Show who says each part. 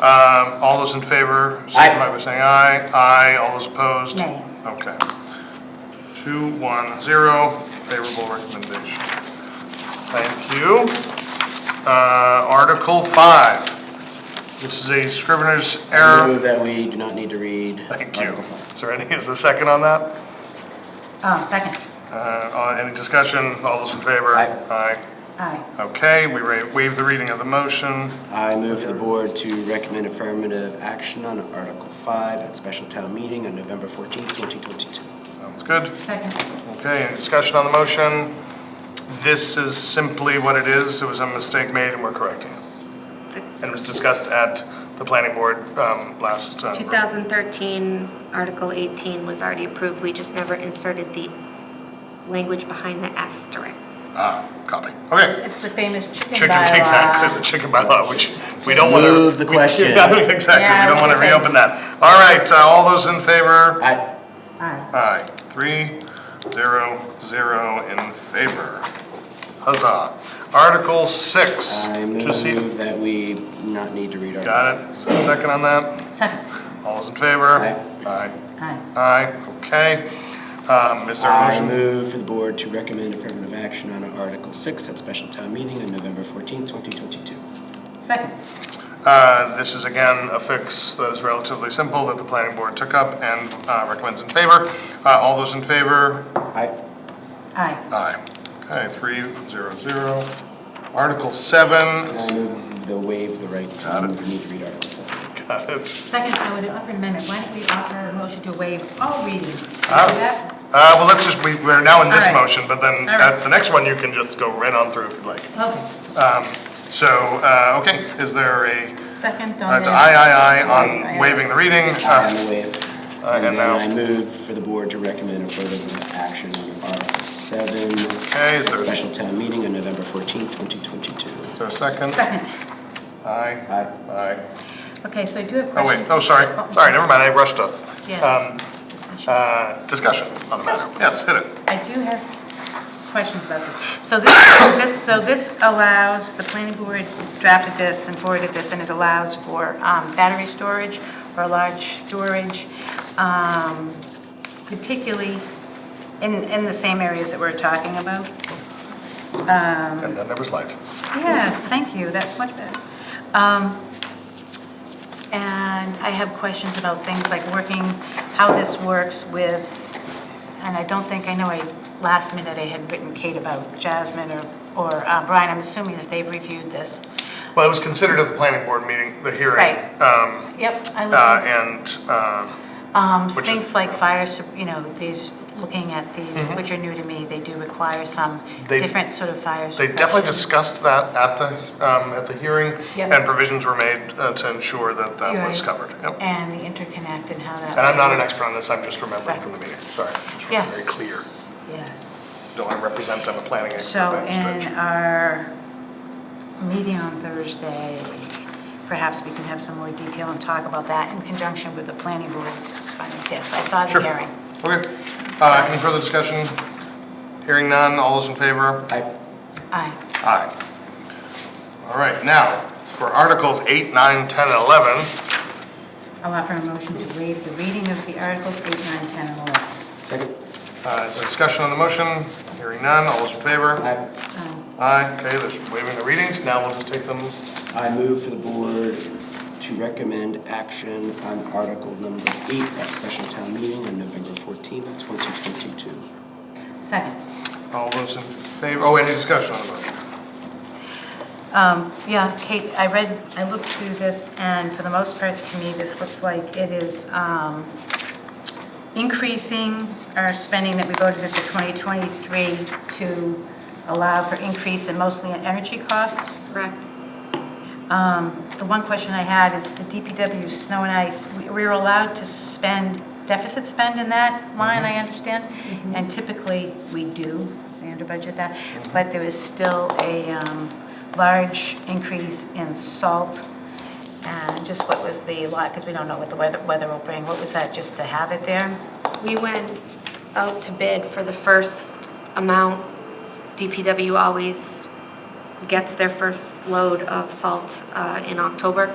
Speaker 1: Um, All those in favor, signify by saying aye. Aye, all those opposed?
Speaker 2: Nay.
Speaker 1: Okay. Two, one, zero, favorable recommendation. Thank you. Uh, Article five. This is a scrivener's
Speaker 3: I
Speaker 1: error.
Speaker 3: move that we do not need to read.
Speaker 1: Thank you.
Speaker 3: Article five.
Speaker 1: Is there any, is there a second on that?
Speaker 2: Oh, second.
Speaker 1: Uh, Any discussion? All those in favor?
Speaker 3: Aye.
Speaker 2: Aye.
Speaker 1: Aye. Okay, we ra- waive the reading of the motion.
Speaker 3: I move for the board to recommend affirmative action on Article 5 at special town meeting on November 14th, 2022.
Speaker 1: Sounds good.
Speaker 2: Second.
Speaker 1: Okay, any discussion on the motion? This is simply what it is. It was a mistake made and we're correcting it. And it was discussed at the planning board um, last. um,
Speaker 4: 2013, Article 18 was already approved, we just never inserted the language behind the asterisk.
Speaker 1: Ah, copy. Okay.
Speaker 2: It's the famous chicken
Speaker 1: Chicken, exactly,
Speaker 2: bylaw.
Speaker 1: the chicken bylaw, which we don't want to.
Speaker 3: Move the question.
Speaker 1: Exactly,
Speaker 2: Yeah, I
Speaker 1: we don't
Speaker 2: was
Speaker 1: want to
Speaker 2: gonna say.
Speaker 1: reopen that. All right, uh, all those in favor?
Speaker 3: Aye.
Speaker 2: Aye.
Speaker 1: Aye, three, zero, zero in favor. Huzzah. Article six.
Speaker 3: I
Speaker 1: to see-
Speaker 3: move that we not need to read Article 6.
Speaker 1: Got it, second on that?
Speaker 2: Second.
Speaker 1: All those in favor? Aye.
Speaker 2: Aye.
Speaker 1: Aye, okay. Um, Is there a
Speaker 3: I
Speaker 1: motion?
Speaker 3: move for the board to recommend affirmative action on Article 6 at special town meeting on November 14th, 2022.
Speaker 2: Second.
Speaker 1: Uh, This is again a fix that is relatively simple that the planning board took up and uh, recommends in favor. Uh, All those in favor?
Speaker 3: Aye.
Speaker 2: Aye.
Speaker 1: Aye. Okay, three, zero, zero. Article seven,
Speaker 3: I move the waive the right to
Speaker 1: Got it.
Speaker 3: need to read Article 7.
Speaker 1: got it.
Speaker 2: Second, I would offer an amendment. Why don't we offer a motion to waive all readings? Do
Speaker 1: Ah.
Speaker 2: that?
Speaker 1: Uh, Well, let's just, we- we're now in this
Speaker 2: All right.
Speaker 1: motion, but then
Speaker 2: All right.
Speaker 1: at the next one, you can just go right on through if you'd like.
Speaker 2: Okay.
Speaker 1: So, uh, okay, is there a,
Speaker 2: Second on
Speaker 1: that's
Speaker 2: the.
Speaker 1: aye, aye,
Speaker 2: Aye,
Speaker 1: aye
Speaker 2: aye.
Speaker 1: on waiving the reading?
Speaker 3: I
Speaker 1: Uh,
Speaker 3: am waive.
Speaker 1: Aye, and
Speaker 3: And then
Speaker 1: now-
Speaker 3: I move for the board to recommend affirmative action on Article 7
Speaker 1: Okay, is
Speaker 3: at
Speaker 1: there-
Speaker 3: special town meeting on November 14th, 2022.
Speaker 1: Is there a second?
Speaker 2: Second.
Speaker 1: Aye.
Speaker 3: Aye.
Speaker 1: Aye.
Speaker 2: Okay, so I do have
Speaker 1: Oh,
Speaker 2: questions.
Speaker 1: wait, oh, sorry, sorry, never mind, I rushed us. Um,
Speaker 2: Yes. Discussion.
Speaker 1: uh, Discussion on the matter, yes, hit it.
Speaker 2: I do have questions about this. So this, this, so this allows, the planning board drafted this and forwarded this, and it allows for um, battery storage or large storage, um, particularly in, in the same areas that we're talking about.
Speaker 1: And then there was light.
Speaker 2: Yes, thank you, that's much better. Um, And I have questions about things like working, how this works with, and I don't think, I know I, last minute I had written Kate about Jasmine or, or uh, Brian, I'm assuming that they've reviewed this.
Speaker 1: Well, it was considered at the planning board meeting, the hearing.
Speaker 2: Right. Mm-hmm.
Speaker 1: um,
Speaker 2: Yep, I
Speaker 1: uh,
Speaker 2: listened.
Speaker 1: And, um,
Speaker 2: Um,
Speaker 1: which is-
Speaker 2: Things like fire, sup- you know, these, looking at these, which are new to me, they do require some
Speaker 1: Mm-hmm. They-
Speaker 2: different sort of fire
Speaker 1: They definitely
Speaker 2: suppression.
Speaker 1: discussed that at the, um, at the hearing,
Speaker 2: Yeah.
Speaker 1: and provisions were made uh, to ensure that that
Speaker 2: You're
Speaker 1: was
Speaker 2: right.
Speaker 1: covered. Yep.
Speaker 2: And the interconnect and how that.
Speaker 1: And I'm not an expert on this, I'm just remembering
Speaker 2: Right.
Speaker 1: from the meeting, sorry. Just wanna be
Speaker 2: Yes.
Speaker 1: Very clear,
Speaker 2: Yes.
Speaker 1: don't I represent, I'm a planning expert
Speaker 2: So
Speaker 1: by any
Speaker 2: in
Speaker 1: stretch.
Speaker 2: our meeting on Thursday, perhaps we can have some more detail and talk about that in conjunction with the planning board's findings. Yes, I saw the
Speaker 1: Sure.
Speaker 2: hearing.
Speaker 1: Okay, Uh, any further discussion? Hearing none, all those in favor?
Speaker 3: Aye.
Speaker 2: Aye.
Speaker 1: Aye. All right, now, for Articles 8, 9, 10, and 11,
Speaker 2: I'll offer a motion to waive the reading of the articles 8, 9, 10, and 11.
Speaker 3: Second.
Speaker 1: uh, is there discussion on the motion? Hearing none, all those in favor?
Speaker 3: Aye.
Speaker 2: Um,
Speaker 1: Aye, okay, there's waiving the readings, now we'll just take them,
Speaker 3: I move for the board to recommend action on Article Number 8 at special town meeting on November 14th, 2022.
Speaker 2: Second.
Speaker 1: all those in favor, oh, any discussion on the motion?
Speaker 2: Um, Yeah, Kate, I read, I looked through this, and for the most part, to me, this looks like it is um, increasing our spending that we voted at the 2023 to allow for increase in mostly in energy costs.
Speaker 4: Correct.
Speaker 2: The one question I had is the DPW snow and ice, we we were allowed to spend, deficit spend in that line, I understand? And typically, we do, we under budget that, but there was still a um, large increase in salt. And just what was the lot, because we don't know what the weather, weather will bring, what was that, just to have it there?
Speaker 4: We went out to bid for the first amount. DPW always gets their first load of salt uh, in October.